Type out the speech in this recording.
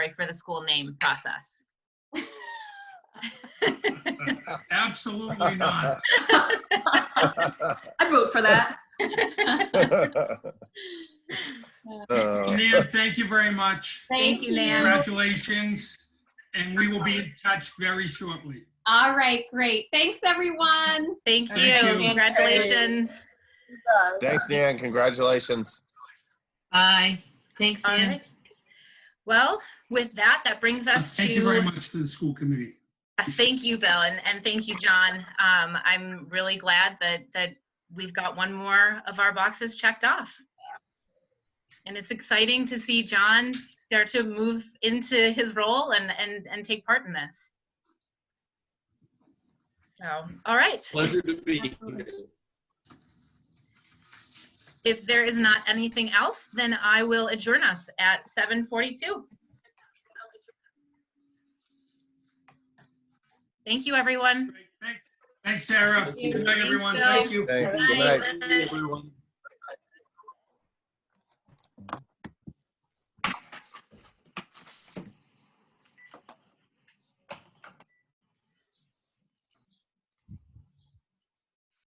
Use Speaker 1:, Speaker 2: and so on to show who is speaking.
Speaker 1: for the school name process.
Speaker 2: Absolutely not.
Speaker 3: I'd vote for that.
Speaker 4: Uh,
Speaker 2: Nan, thank you very much.
Speaker 3: Thank you, Nan.
Speaker 2: Congratulations, and we will be in touch very shortly.
Speaker 3: All right, great. Thanks, everyone.
Speaker 1: Thank
Speaker 2: Thank
Speaker 1: you.
Speaker 2: you.
Speaker 1: Congratulations.
Speaker 4: Thanks, Dan. Congratulations.
Speaker 5: Bye. Thanks,
Speaker 1: All
Speaker 5: Ann.
Speaker 1: right. Well, with that, that brings us to.
Speaker 2: Thank you very much to the school committee.
Speaker 1: Uh, Thank you, Bill, and, and thank you, John. Um, I'm really glad that, that we've got one more of our boxes checked off. And it's exciting to see John start to move into his role and, and, and take part in this. So, all right.
Speaker 6: Pleasure to be
Speaker 3: Absolutely.
Speaker 6: here.
Speaker 1: If there is not anything else, then I will adjourn us at 7:42. Thank you, everyone.
Speaker 2: Thanks, Sarah.
Speaker 6: Thank you.
Speaker 2: Good night, everyone.
Speaker 1: Thank
Speaker 2: Thank you.
Speaker 4: Thanks. Good night.
Speaker 6: Everyone.